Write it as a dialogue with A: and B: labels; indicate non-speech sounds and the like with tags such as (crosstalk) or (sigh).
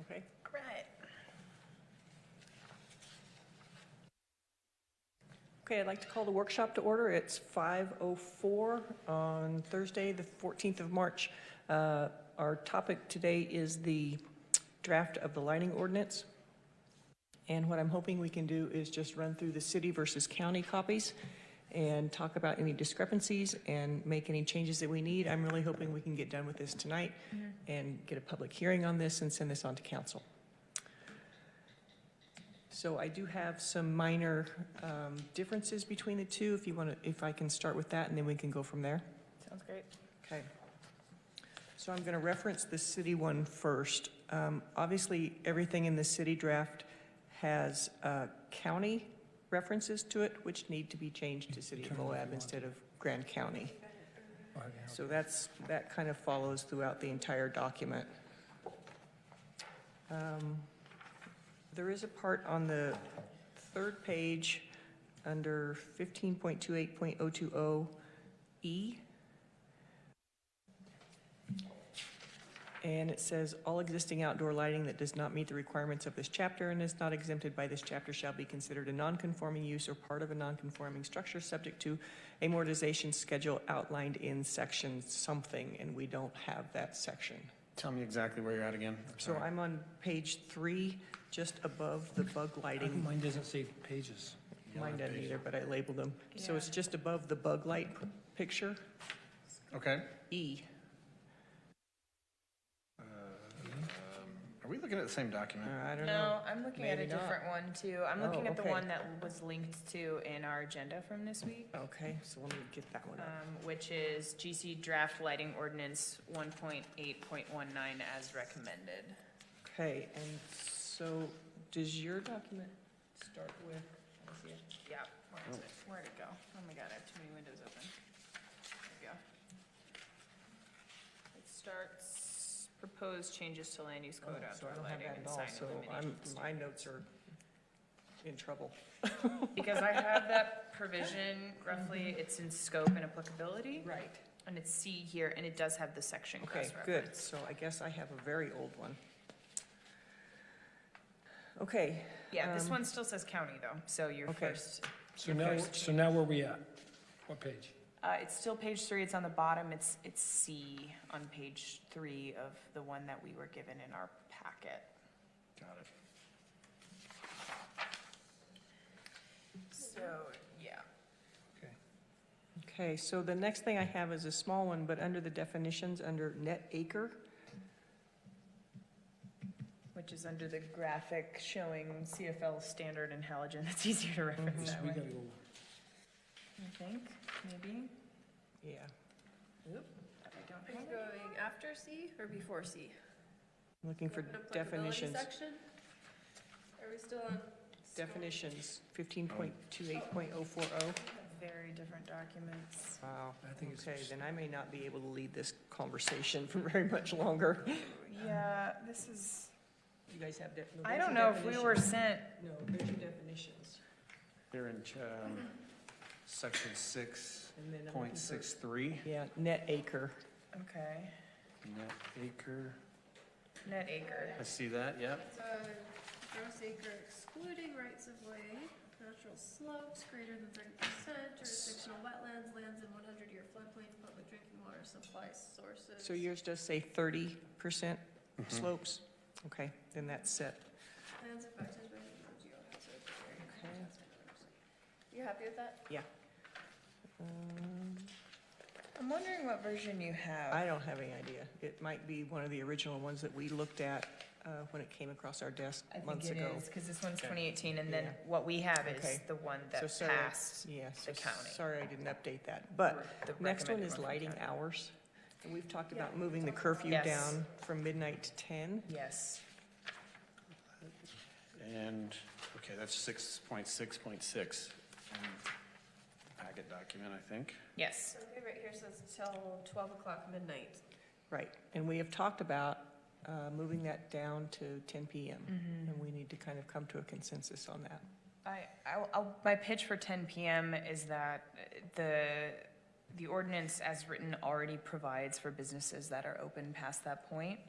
A: Okay.
B: All right.
A: Okay, I'd like to call the workshop to order. It's 5:04 on Thursday, the 14th of March. Uh, Our topic today is the draft of the lighting ordinance. And what I'm hoping we can do is just run through the city versus county copies and talk about any discrepancies and make any changes that we need. I'm really hoping we can get done with this tonight and get a public hearing on this and send this on to council. So I do have some minor um, differences between the two, if you want to, if I can start with that, and then we can go from there.
B: Sounds great.
A: Okay. So I'm going to reference the city one first. Um, Obviously, everything in the city draft has uh, county references to it, which need to be changed to City of Moab instead of Grand County. So that's, that kind of follows throughout the entire document. Um, There is a part on the third page, under 15.28.020E, E. and it says, "All existing outdoor lighting that does not meet the requirements of this chapter and is not exempted by this chapter shall be considered a nonconforming use or part of a nonconforming structure subject to amortization schedule outlined in section something," and we don't have that section.
C: Tell me exactly where you're at again. I'm
A: So
C: sorry.
A: I'm on page three, just above the bug lighting.
D: Mine doesn't save pages.
A: Mine doesn't either, but I labeled them. So it's
B: Yeah.
A: just above the bug light p- picture,
C: Okay.
A: E.
C: Um, Are we looking at the same document?
A: Uh, I don't know.
B: No, I'm looking at a
A: Maybe not.
B: different one too. I'm looking
A: Oh,
B: at the
A: okay.
B: one that was linked to in our agenda from this week,
A: Okay, so let me get that one
B: um,
A: up.
B: which is GC draft lighting ordinance one point eight point one nine as recommended.
A: Okay, and so does your document start with, let me see it.
B: Yeah, where is it? Where'd it go? Oh my god, I have too many windows open. There we go. It starts, proposed changes to land use code
A: Oh, so I
B: outdoor
A: don't have
B: lighting
A: that
B: and
A: at all,
B: sign
A: so I'm,
B: illumination.
A: my notes are in trouble.
B: Because I have that provision roughly, it's in scope and applicability.
A: Right.
B: And it's C here, and it does have the section
A: Okay,
B: cross-referenced.
A: good, so I guess I have a very old one. Okay,
B: Yeah, this
A: Um,
B: one still says county though, so you're
A: Okay.
B: first.
D: So now, so now where we at? What page?
B: Uh, it's still page three, it's on the bottom, it's, it's C on page three of the one that we were given in our packet.
C: Got it.
B: So, yeah.
D: Okay.
A: Okay, so the next thing I have is a small one, but under the definitions, under net acre.
B: Which is under the graphic showing CFL standard and halogen, (laughs) that's easier to reference
D: So
B: that
D: we
B: way,
D: gotta go,
B: I think, maybe.
A: Yeah.
B: Oop, I don't
E: Are you
B: have it.
E: going after C or before C?
A: Looking for
E: Open up
A: definitions.
E: applicability section? Are we still on?
A: Definitions, fifteen point two eight point oh four oh.
B: Very different documents.
A: Wow.
D: I think it's.
A: Okay, then I may not be able to lead this conversation (laughs) for very much longer.
B: Yeah, this is,
A: You guys have def- no,
B: I
A: there's
B: don't
A: your
B: know if we were
A: definitions.
B: sent
A: No, there's your definitions.
C: They're in um, section six
A: And then I'm looking
C: point
A: for-
C: six three,
A: Yeah, net acre.
B: Okay,
C: net acre.
B: net acre.
C: I see that, yep.
E: It's a gross acre excluding rights of way, natural slopes greater than thirty percent, jurisdictional wetlands, lands in one hundred year floodplain, public drinking water supply sources.
A: So yours does say thirty percent
C: Mm-hmm.
A: slopes? Okay, then that's set.
E: Lands affected by the geohazard area.
A: Okay.
E: You happy with that?
A: Um,
B: I'm wondering what version you have.
A: I don't have any idea. It might be one of the original ones that we looked at uh, when it came across our desk
B: I think
A: months
B: it
A: ago.
B: is, because this one's
C: Okay.
B: 2018, and then
A: Yeah.
B: what we have is
A: Okay.
B: the one
A: So
B: that
A: sorry.
B: passed.
A: Yeah, so
B: the county.
A: sorry I didn't update that. But
B: the
A: next one
B: recommended
A: is
B: from
A: lighting
B: county.
A: hours. And we've talked
E: Yeah,
A: about moving
E: we
A: the
E: talked about
A: curfew
B: that. Yes.
A: down from midnight to 10.
B: Yes,
C: And, okay, that's six point six point six. Packet document, I think.
B: yes.
E: Okay, right here says till twelve o'clock midnight.
A: Right. And we have talked about uh, moving that down to 10 PM.
B: Mm-hmm.
A: And we need to kind of come to a consensus on that.
B: I, I'll- I'll, my pitch for 10 PM is that uh, the, the ordinance as written already provides for businesses that are open past that point.